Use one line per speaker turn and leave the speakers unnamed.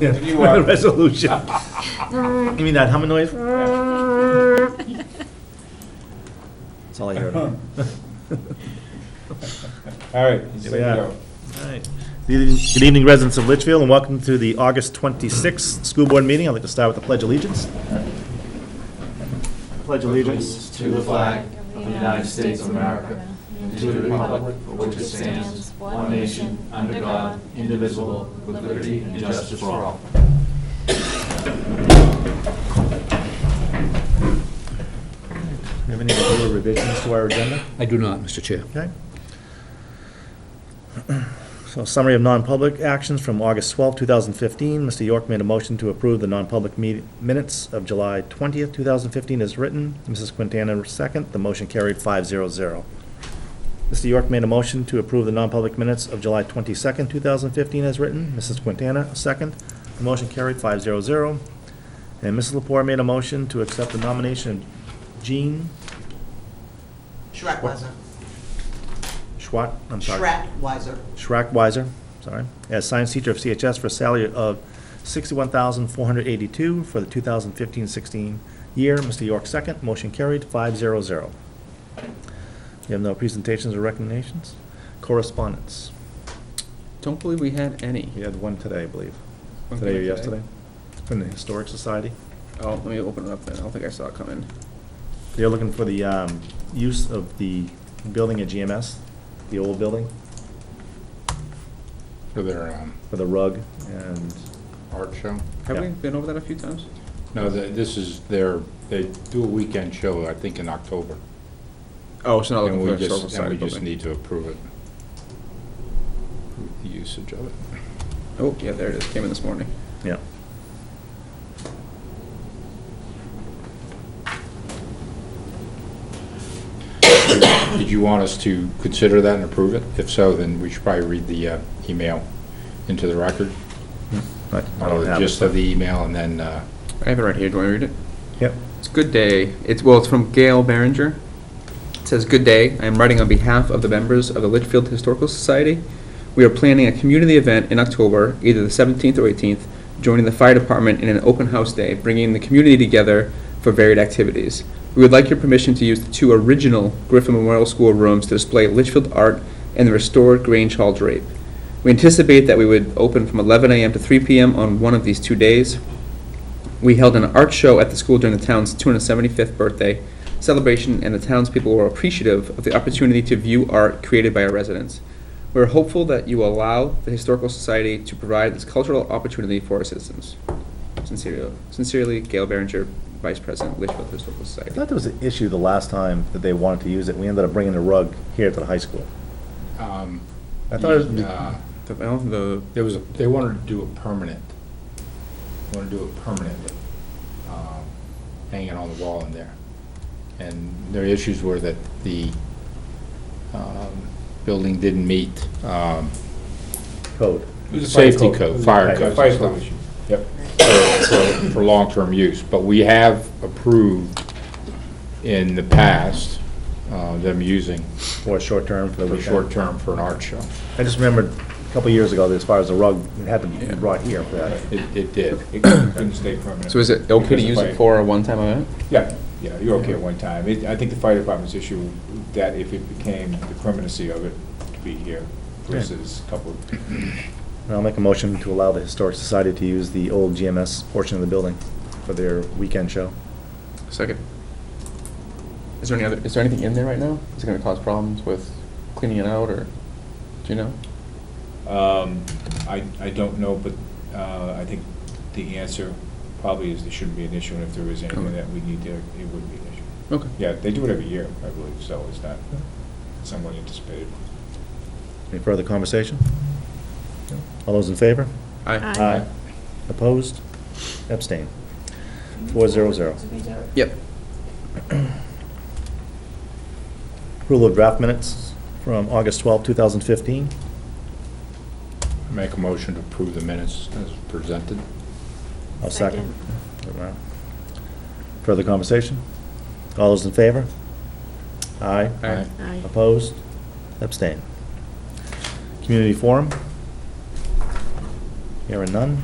Yes.
You are.
Resolution. Give me that humming noise. That's all I heard. All
All right, you
Here
said
we are.
go.
right. Good evening- good evening, residents of Litchfield, and welcome to the August 26th school board meeting. I'd like to start with the pledge of allegiance. Pledge allegiance.
allegiance to the flag of the United States of America and to the republic for which it stands, one nation, under God, indivisible, with liberty and justice for all.
Do you have any other revisions to our agenda?
I do not, Mr. Chair.
Okay. So summary of non-public actions from August twelfth, two 2015. Mr. York made a motion to approve the non-public me- minutes of July twentieth, two 2015 as written. Mrs. Quintana second. The motion carried 500. Mr. York made a motion to approve the non-public minutes of July twenty-second, two 2015 as written. Mrs. Quintana second. The motion carried 500. And Mrs. Lepore made a motion to accept the nomination of Jean
Schreckwiser.
Schwat, I'm sorry.
Schreckwiser.
Schrackwiser, sorry, as science teacher of CHS for a salary of $61,482 for the 2015-16 year. Mr. York, second. Motion carried, 500. You have no presentations or recommendations? Correspondence?
Don't believe we had any.
We had one today, I believe.
One
Today or
today?
yesterday? From the Historic Society.
Oh, let me open it up then. I don't think I saw it coming.
They're looking for the um, use of the building at GMS, the old building,
for their um,
for the rug and,
art show.
Have
Yeah.
we been over that a few times?
No, th- this is their, they do a weekend show, I think, in October.
Oh, it's not
And
looking for
we
a historical
just, and
society
we just
building.
need to approve it. Approve The usage of it.
Oh, yeah, there it is. Came in this morning.
yeah.
Did you want us to consider that and approve it? If so, then we should probably read the uh, email into the record.
I I don't
The
have
gist
it.
of the email and then, uh,
I have it right here. Do you want me to read it?
Yep.
It's Good Day. It's, well, it's from Gail Barringer. It says, "Good day. I am writing on behalf of the members of the Litchfield Historical Society. We are planning a community event in October, either the 17th or 18th, joining the fire department in an open house day, bringing the community together for varied activities. We would like your permission to use the two original Griffin Memorial School rooms to display Litchfield art and the restored Grange Hall drape. We anticipate that we would open from 11 a.m. to 3 p.m. on one of these two days. We held an art show at the school during the town's 275th birthday celebration, and the townspeople were appreciative of the opportunity to view art created by our residents. We're hopeful that you will allow the Historical Society to provide this cultural opportunity for our citizens. Sincerely, sincerely, Gail Berenger, Vice President, Litchfield Historical
I
Society.
thought there was an issue the last time that they wanted to use it. We ended up bringing the rug here to the high school.
um,
I thought it was,
uh,
The, well, the-
there was, a- they wanted to do it permanent. Want to do it permanently, um, hanging on the wall in there. And their issues were that the um, building didn't meet um,
code.
safety code, fire
Right.
code.
Fire code issue.
Yep. For- for- For long-term use, but we have approved in the past uh, them using
Or short term for the
for
weekend.
short-term for an art show.
I just remembered a couple years ago, that as far as the rug, it had to be brought here for that.
It it did.
It couldn't stay permanent.
So is it okay to
Because
use
the
it
fire-
for a one-time event?
Yeah, yeah, you're okay at one time. It- I think the fire department's issue, that if it became the permanency of it to be here versus a couple of
And I'll make a motion to allow the Historic Society to use the old GMS portion of the building for their weekend show.
Second. Is there any other, is there anything in there right now? Is it gonna cause problems with cleaning it out, or, do you know?
Um, I, I don't know, but uh, I think the answer probably is there shouldn't be an issue, and if there is anything
Okay.
that we need to, it would be an issue.
Okay.
Yeah, they do it every year, I believe, so it's not somewhat anticipated.
Any further conversation? All those in favor?
Aye.
Aye. Opposed? Abstain. Four zero zero.
Yep.
Rule of draft minutes from August twelfth, two 2015.
Make a motion to approve the minutes as presented.
I'll second. Further conversation? All those in favor? Aye.
Aye.
Aye.
Opposed? Abstain. Community forum? Hearing none.